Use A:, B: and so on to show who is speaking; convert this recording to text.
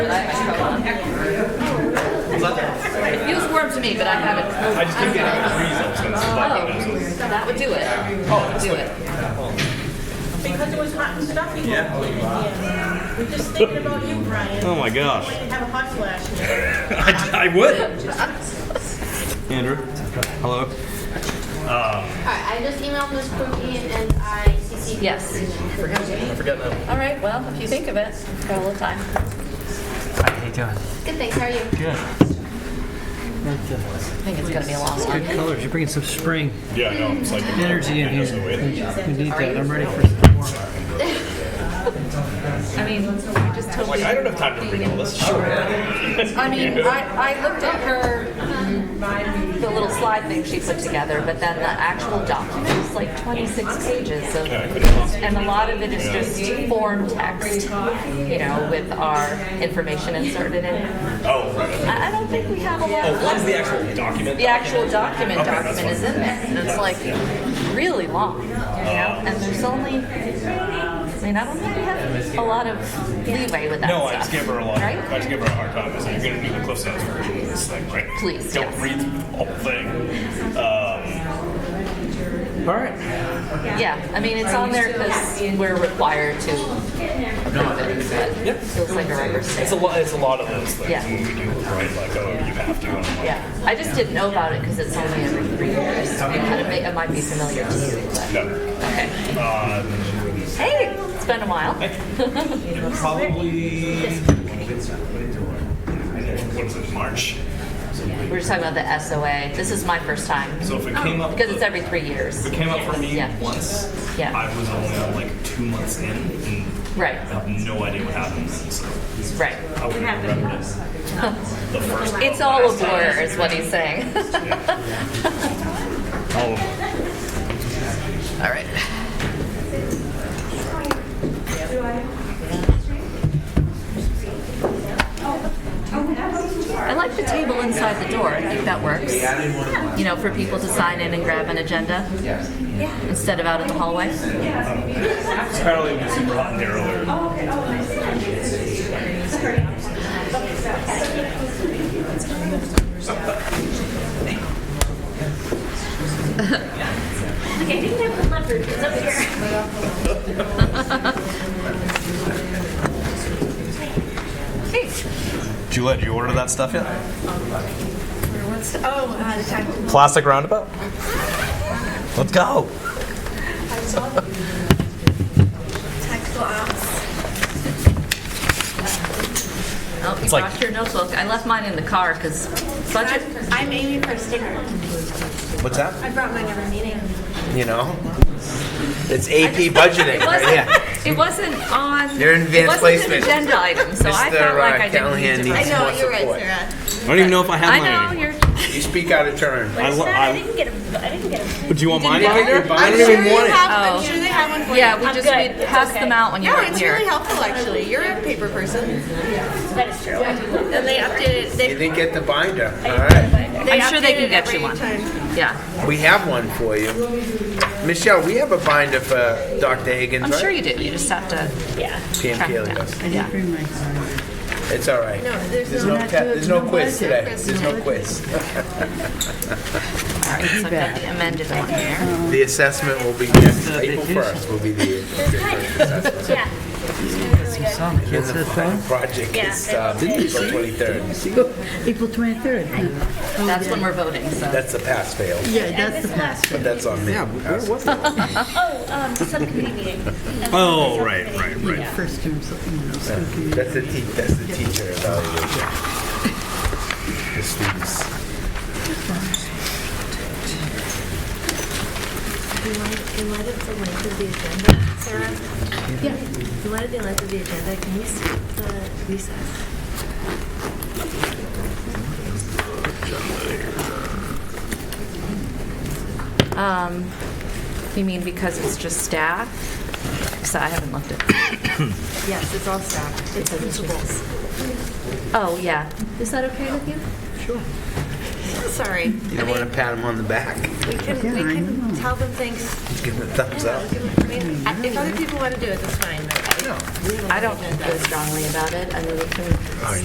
A: It feels warm to me, but I haven't.
B: I just couldn't get a reason since it's like, you know,
A: Oh, that would do it. Oh, do it.
C: Because it was hot and stuffy. Yeah. We're just thinking about you, Brian.
D: Oh my gosh.
C: We have a hot flash.
D: I, I would. Andrew, hello.
E: Alright, I just emailed Miss Cookie and I CC'd. her.
A: Yes.
B: I forget now.
A: All right. Well, if you think of it, got a little time.
D: How you doing?
E: Good, thanks, how are you?
F: Good.
A: I think it's gonna be a long
F: Good
A: one.
F: colors. You're bringing some spring
B: Yeah, I know. It's like
F: energy in
B: I know, so
F: here.
B: wait.
F: We need that. I'm ready for some more.
A: I mean, you just told
B: Like,
A: me.
B: I don't have time to read all this.
A: I mean, I, I looked at her, the little slide thing she put together, but then the actual document is like 26 pages of,
B: I couldn't possibly-
A: and a lot of it is just form text, you know, with our information inserted in. it.
B: Oh, right.
A: I, I don't think we have a lot.
B: Oh, what is the actual document?
A: The actual document
B: Okay, that's
A: document is in
B: fine.
A: there, and it's like really long, you know. And there's only, I mean, I don't think we have a lot of leeway with that
B: No,
A: stuff.
B: I just gave her a lot.
A: Right?
B: I just gave her a hard time. I said, "You're gonna do the Cliff Notes version of this thing, right?
A: Please,
B: don't
A: yes.
B: read the whole thing." Um,
F: All right.
A: Yeah, I mean, it's on there because we're required to approve it, but
B: Yep.
A: feels like a record
B: it's a
A: stamp.
B: lot. It's a lot of those things
A: Yeah.
B: when we do right. Like, oh, you have to. And I'm like,
A: Yeah, I just didn't know about it because it's only every three years. It kind of, may- it might be familiar to you, but,
B: No.
A: okay.
B: Uh,
A: Hey, it's been a while.
B: probably. What is it? March.
A: We were just talking about the SOA. This is my first time,
B: So if it came up
A: because it's every three years.
B: If it came up for me
A: Yeah.
B: once,
A: Yeah.
B: I was only like two months in, and
A: Right.
B: I have no idea what happened. then, So
A: Right.
B: I wouldn't have remembered it. The first.
A: It's all a blur, is what he's saying.
B: All of them.
A: All right. I like the table inside the door. I think that works. You know, for people to sign in and grab an agenda. Yeah. Instead of out in the hallway.
B: Apparently, it was super hot in here earlier.
E: Okay, I think that was my group, it's up here.
A: Hey,
D: Juliet, did you order that stuff yet?
G: Oh, uh, the time.
D: Plastic roundabout. Let's go.
G: Tactical ops.
A: oh, you
D: like-
A: brought your notebook. I left mine in the car because budget.
G: I'm, I'm aiming for a sticker.
H: What's that?
G: I brought mine every meeting.
H: You know? It's AP budgeting
A: It
H: right
A: wasn't,
H: here.
A: it wasn't on.
H: You're in advanced
A: it wasn't
H: placement.
A: an agenda item, so I
H: Mr.,
A: felt like I
H: uh,
A: didn't need
H: Callahan
A: to.
H: needs
A: write
H: I
A: it.
H: know, more you're right, support.
G: Sarah.
D: I don't even know if I have mine.
A: I know
D: anymore.
A: you're.
H: You speak out of turn.
D: I lo-
C: I
D: I,
C: didn't get a, I didn't get a.
D: do you want mine?
H: Binder?
D: Binder?
H: I don't even want it.
G: have,
A: Oh.
G: I'm sure they have one for
A: Yeah,
G: you.
A: we
C: I'm
A: just
C: good. Oh,
A: we
C: It's
A: passed
C: okay.
A: them out when you
G: No,
A: were
G: it's
A: here.
G: really helpful actually. You're a paper person.
C: That is true. I do.
G: And they updated. They,
H: You didn't get the binder. All right.
G: they
A: I'm sure they can
G: updated
A: get you
G: every
A: one.
G: time.
A: Yeah,
H: We have one for you. Michelle, we have a binder for Dr. Higgins,
A: I'm
H: right?
A: sure you do. You just have to
C: Yeah.
H: Pam
A: track
H: Keely
A: it down.
H: does.
A: Yeah.
H: It's all right.
G: No, there's
H: There's
G: no-
H: no, te- there's no
G: budget.
H: quiz today. There's no quiz.
A: All right. So I've got the amended one here.
H: The assessment will be next. April 1st will be the
C: Yeah.
H: project. It's um, April 23rd.
I: April 23rd. huh?
A: That's when we're voting. So
H: That's the pass fail.
I: Yeah, that's the past.
H: But that's on me. Pass fail.
C: Oh, um, subcommittee meeting.
D: Oh, right, right, right.
I: First term, so, you know, so we can-
H: That's the, te- that's the teacher evaluation. The students.
G: In light, in light of the length of the agenda, Sarah. Yeah. In light of the length of the agenda, can we skip the recess?
A: you mean because it's just staff? So I haven't looked at.
G: Yes, it's all staff. It's principals.
A: Oh yeah. Is that okay with you?
G: Sorry.
H: You don't want to pat him on the back.
G: We can, we
I: I
G: can
I: know.
G: tell them thanks.
H: Give him a thumbs
G: Yeah,
H: up.
G: we can- I mean, I- If other people want to do it, that's fine. but I-
A: I don't feel strongly about it. I mean, we can